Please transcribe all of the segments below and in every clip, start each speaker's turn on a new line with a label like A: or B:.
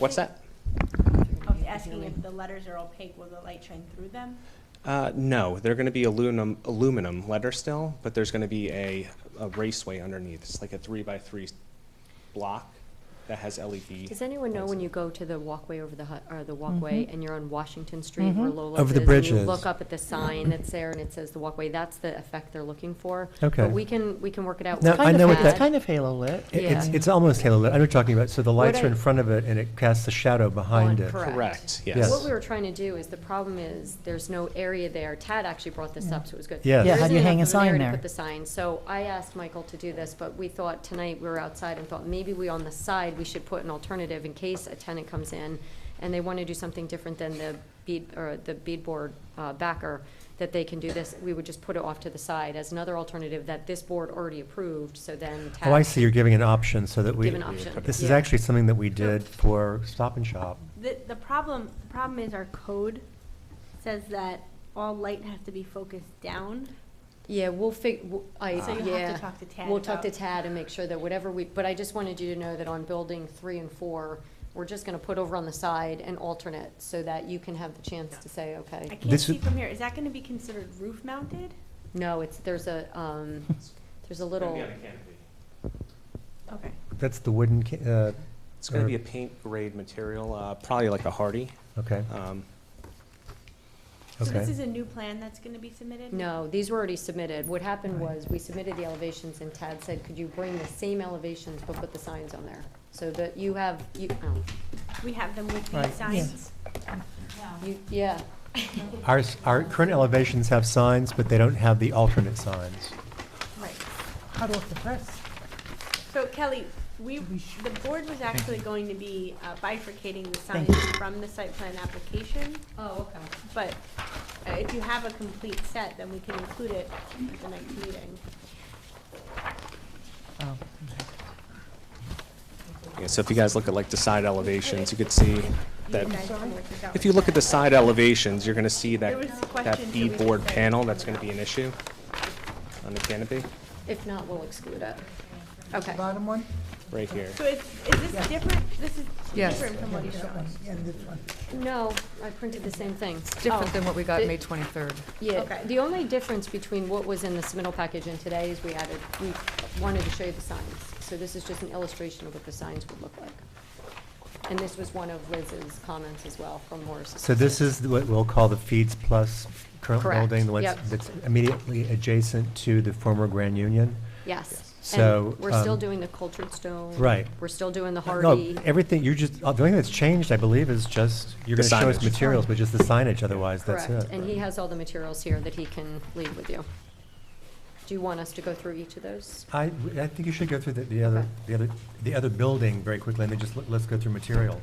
A: What's that?
B: Of asking if the letters are opaque, will the light shine through them?
A: Uh, no, they're going to be aluminum, aluminum letter still, but there's going to be a, a raceway underneath. It's like a three by three block that has E LED.
C: Does anyone know when you go to the walkway over the hut, or the
B: Mm-hmm.
C: walkway, and you're on Washington Street where Lola's
D: Over the
C: is, and
D: bridge
C: you
D: is.
C: look up at the sign that's there and it says the walkway, that's the effect they're looking for.
D: Okay.
C: But we can, we can work it out.
D: No,
C: with
D: I
E: Kind
D: know
E: of,
D: what
E: it's
D: that-
E: kind of halo lit.
D: It- It's,
C: Yeah.
D: it's almost halo lit. I know what you're talking about. So the lights
C: What
D: are in
C: I-
D: front of it and it casts a shadow behind
C: on-
D: it.
A: Correct,
D: Yes.
C: What
A: yes.
C: we were trying to do is, the problem is, there's no area there. Tad actually brought this up, so it was good.
D: Yes.
C: There
D: Yeah, how do
C: isn't
E: you
C: enough
E: hang a
C: of an
E: sign
C: area to
E: there?
C: Put the sign, so I asked Michael to do this, but we thought tonight, we were outside and thought maybe we on the side, we should put an alternative in case a tenant comes in and they want to do something different than the bead, or the beadboard uh, backer, that they can do this. We would just put it off to the side as another alternative that this board already approved, so then Tad.
D: Oh, I see. You're giving an option so that we.
C: Give an option.
D: This is
C: Yeah.
D: actually something that we did for Stop and Shop.
B: The, the problem, the problem is our code says that all light has to be focused down.
C: Yeah, we'll fig, w- I,
B: So you'll have to
C: yeah.
B: talk to Tad
C: We'll talk to
B: about-
C: Tad and make sure that whatever we, but I just wanted you to know that on building three and four, we're just gonna put over on the side and alternate, so that you can have the chance to say,
B: I
C: okay.
B: can't
D: This
B: see
D: is-
B: from here, is that gonna be considered roof mounted?
C: No, it's, there's a, um, there's a little,
B: Okay.
D: That's the wooden, ca- uh,
A: It's going to be a paint grade material, uh, probably like a hardy.
D: okay,
A: Um,
B: So this
D: okay.
B: is a new plan that's gonna be submitted?
C: no, these were already submitted. What happened
D: Right.
C: was, we submitted the elevations, and Tad said, could you bring the same elevations, but put the signs on there? So that you have, you, oh,
B: We have them with
D: Right,
B: these signs?
C: you, yeah,
D: Our, s- our current elevations have signs, but they don't have the alternate signs.
B: Right.
E: Hot off the press.
B: So Kelly, we, the board was actually going to be uh, bifurcating the
E: Thank
B: signs from the site plan application,
C: oh, okay.
B: but uh, if you have a complete set, then we can include it at the next meeting.
E: Oh.
A: yeah, so if you guys look at like the side elevations, you could see that,
B: guys can work this out
A: if
B: with
A: you look at
B: Tad.
A: the side elevations, you're going to see
B: There
A: that,
B: was a
A: that
B: question, so we
A: beadboard
B: can-
A: panel, that's going to be an issue on the canopy,
C: If not, we'll exclude it. Okay.
F: Bottom one?
A: right here.
B: So is, is this different, this is
G: Yes.
B: different from what you showed us?
F: And this one.
C: No, I printed the same thing.
G: Different
C: Oh.
G: than what we got
C: The-
G: May 23rd.
C: Yeah,
B: Okay.
C: the only difference between what was in the submittal package and today is we added, we wanted to show you the signs. So this is just an illustration of what the signs would look like. And this was one of Liz's comments as well from Morris.
D: So this is what we'll call the Feeds Plus current
C: Correct,
D: building, the one
C: yep.
D: that's immediately adjacent to the former Grand Union.
C: Yes.
D: So,
C: And we're still
D: um,
C: doing the cultured stone.
D: Right.
C: We're still doing the hardy.
D: No, everything, you just, uh, the only thing that's changed, I believe, is just, you're
A: The
D: gonna show us
A: signage.
D: materials, but just the signage, otherwise, that's it.
C: Correct, and he has all the materials here that he can leave with you. Do you want us to go through each of those?
D: I, I think you should go through the, the other,
C: Okay.
D: the other, the other building very quickly, and then just, let- let's go through materials.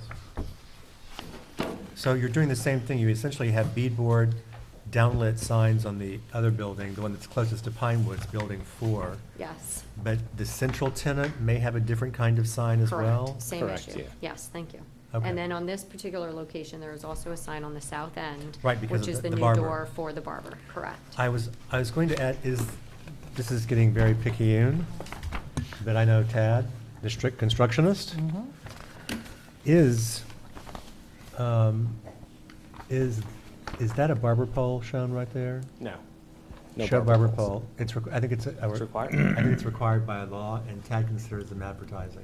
D: So you're doing the same thing, you essentially have beadboard, downlit signs on the other building, the one that's closest to Pine Woods, Building Four.
C: Yes.
D: But the central tenant may have a different kind of sign as well?
C: Correct, same
A: Correct,
C: issue.
A: yeah.
C: Yes, thank you.
D: Okay.
C: And then on this particular location, there is also a sign on the south end.
D: Right, because
C: Which
D: of
C: is the
D: the- the
C: new
D: barber.
C: door for the barber, correct.
D: I was, I was going to add, is, this is getting very picayune, but I know Tad, the strict constructionist,
E: Mm-hmm.
D: is, um, is, is that a barber pole shown right there?
A: No. No
D: Show barber
A: poles.
D: pole. It's, requ- I think it's. a-
A: It's required?
D: I think it's required by law, and Tad considers them advertising.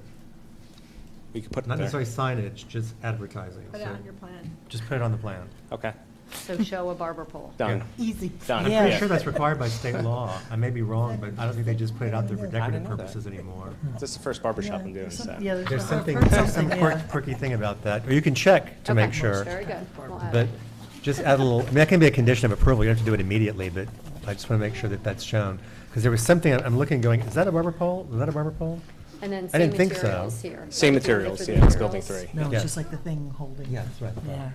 A: We could put it
D: Not
A: there.
D: necessarily signage, just advertising.
B: Put it
D: so
B: on your plan.
D: Just put it on the plan.
A: Okay,
C: So show a barber pole.
A: done.
F: Easy.
A: Done.
D: I'm
E: Yeah.
D: pretty sure that's required by state law. I may be wrong, but I don't think they just put it out there for
F: I didn't
D: decorative
A: know that. Hmm.
D: purposes anymore.
A: This is the first barber shop I'm
F: Yeah,
A: doing,
F: some-
A: so.
F: yeah, there's
D: There's
F: one.
D: something,
F: I've heard
D: there's some
F: something,
D: quirk-
F: yeah.
D: quirky thing about that, or you can check to make
C: Okay,
D: sure.
C: Very good. We'll add
D: But
C: it.
D: just add a little, I mean, that can be a condition of approval, you don't have to do it immediately, but I just want to make sure that that's shown. Because there was something, I'm- I'm looking going, is that a barber pole? Is that a barber pole?
C: And then
D: I
C: same
D: didn't think so.
C: materials here. Right,
A: Same
C: do you wanna
A: materials,
C: look for
A: yeah,
C: the
A: it's building
C: materials?
A: three.
F: No,
D: Yeah.
F: it's just like the thing holding.
D: Yeah, that's right.
F: Yeah.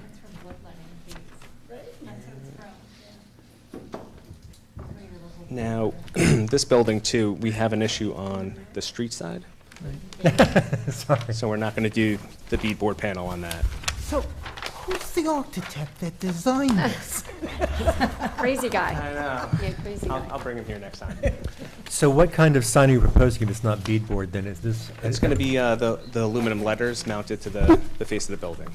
A: Now, this building too, we have an issue on the street side,
D: Sorry.
A: so we're not going to do the beadboard panel on that.
F: So
E: Who's the architect that designed this?
C: Crazy guy.
A: I know.
C: Yeah, crazy
A: I'll, I'll
C: guy.
A: bring him here next time.
D: So what kind of sign are you proposing if it's not beadboard then? Is this?
A: It's going to be uh, the the aluminum letters mounted to the the face of the building.